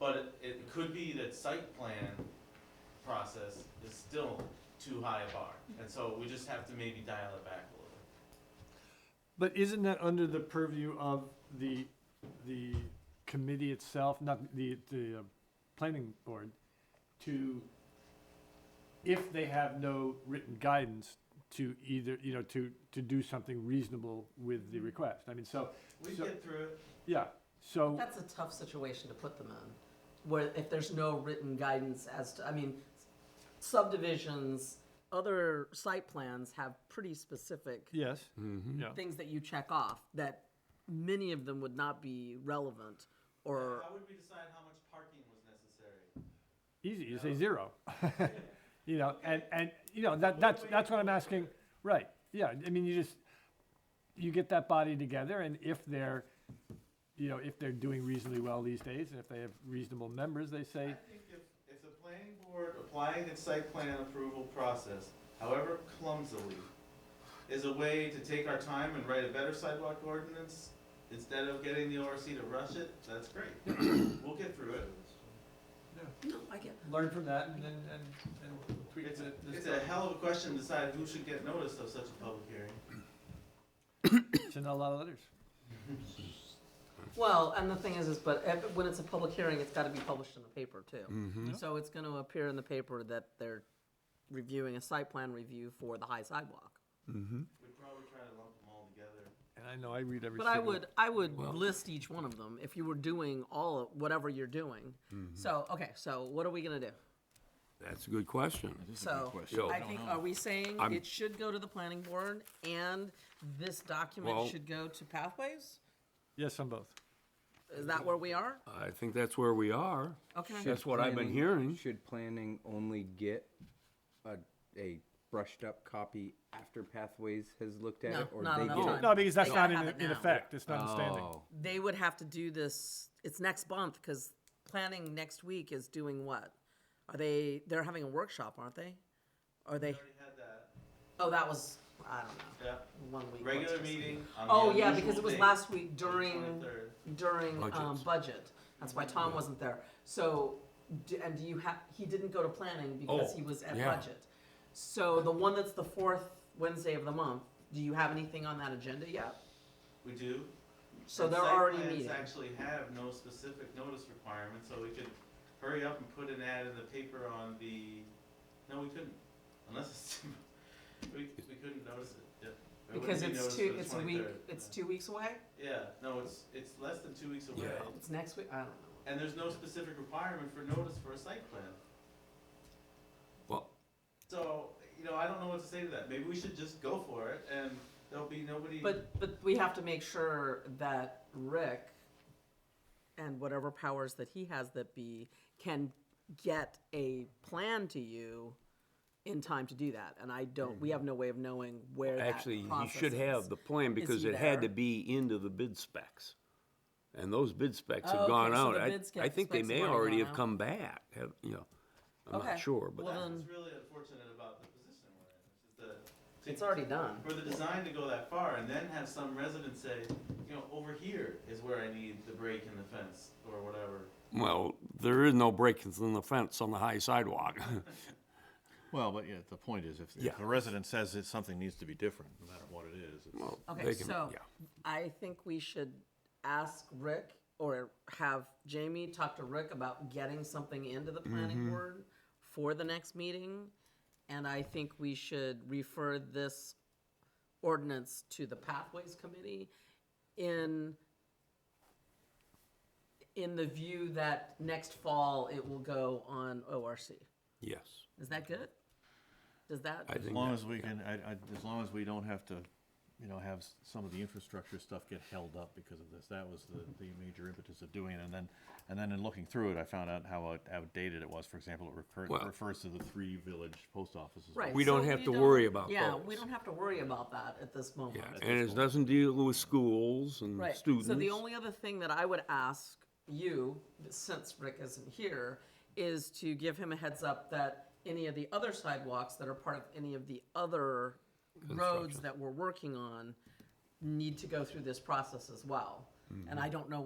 But it, it could be that site plan process is still too high a bar, and so we just have to maybe dial it back a little bit. But isn't that under the purview of the, the committee itself, not the, the uh, planning board, to, if they have no written guidance, to either, you know, to, to do something reasonable with the request? I mean, so, We So- get through it, yeah, so. That's a tough situation to put them in, where if there's no written guidance as to, I mean, subdivisions, other site plans have pretty specific Yes. Yeah. things that you check off that many of them would not be relevant or how would we decide how much parking was necessary? Easy, you say zero. You know, and, and, you know, that, that's, that's what I'm asking, right, yeah, I mean, you just, you get that body together, and if they're, you know, if they're doing reasonably well these days, and if they have reasonable members, they I say, think if, if the planning board applying its site plan approval process, however clumsily, is a way to take our time and write a better sidewalk ordinance, instead of getting the ORC to rush it, that's great. We'll get through it. no, I get learn from that and then, and, and tweak It's a, it. it's a hell of a question to decide who should get notice of such a public hearing. send out a lot of letters. Well, and the thing is, is but if, when it's a public hearing, it's got to be published in the paper too. So it's going to appear in the paper that they're reviewing a site plan review for the high sidewalk. We'd probably try to lump them all together. And I know, I read every But I single. would, I would list each one of them if you were doing all of whatever you're doing. Mm-hmm. So okay, so what are we going to do? That's a good question. So Yo. I think are we saying I'm- it should go to the planning board and this document Well- should go to pathways? Yes, on both. Is Mm-hmm. that where we are? I think that's where we are. Okay. That's what I've been Planning- hearing. Should planning only get a, a brushed up copy after Pathways has looked at No, it? or not they on that get it? time. No, because that's They gotta not in, have it in now. effect, it's not in standing. Oh, They would have to do this. It's next month because planning next week is doing what? Are they? They're having a workshop, aren't they? Are We they? already had that, Oh, that was I don't know. yeah. One week. Regular what's this? meeting on the Oh yeah, unusual because it was date, last week the during 23rd. during um, Budgets. budget. That's why Tom wasn't there. So, d- and do you have? He didn't go to planning because Oh, he was at yeah. budget. So the one that's the fourth Wednesday of the month. Do you have anything on that agenda yet? We do. So And they're site already plans meeting. Actually have no specific notice requirement, so we could hurry up and put an ad in the paper on the, no, we couldn't, unless it's, we, we couldn't notice it, yeah. There Because wouldn't be it's notice two. for the It's a week. 23rd. It's two weeks away. Yeah, no, it's, it's less than two weeks away, Yeah. It's next week. I don't know. and there's no specific requirement for notice for a site plan. Well, So, you know, I don't know what to say to that, maybe we should just go for it, and there'll be nobody. But but we have to make sure that Rick and whatever powers that he has that be can get a plan to you in time to do that. And I don't. We have no way of knowing where. that Mm-hmm. actually, he process should have is. the plan Is because he it had to there? be into the bid specs. And those bid specs Oh, have gone okay, so out. the I- bid sca- I think they specs may have already already gone have out. come back, have, you know, I'm Okay. not sure, Well, but That's then- what's really unfortunate about the position we're in, which is the. It's already done. For the design to go that far and then have some resident say, you know, over here is where I need the break in the fence or whatever. well, there is no break in the fence on the high sidewalk. Well, but yeah, the point is, if, Yeah. if a resident says that something needs to be different, no matter what it is, it's. Well, Okay, they can- so yeah. I think we should ask Rick or have Jamie talk to Rick about getting something into the planning Mm-hmm. board for the next meeting. And I think we should refer this ordinance to the Pathways Committee in in the view that next fall it will go on ORC. Yes, Is that good? Does that I As think long that- as we can, I, I, as long as we don't have to, you know, have s- some of the infrastructure stuff get held up because of this, that was the, the major impetus of doing it, and then, and then in looking through it, I found out how out- outdated it was, for example, it recur- Well- refers to the three village post offices. Right. We don't so have to worry about Yeah, those. we don't have to worry about that at this moment. yeah, and it doesn't deal with schools and Right. students. So the only other thing that I would ask you, since Rick isn't here, is to give him a heads up that any of the other sidewalks that are part of any of the other roads Construction. that we're working on need to go through this process as well. And I don't know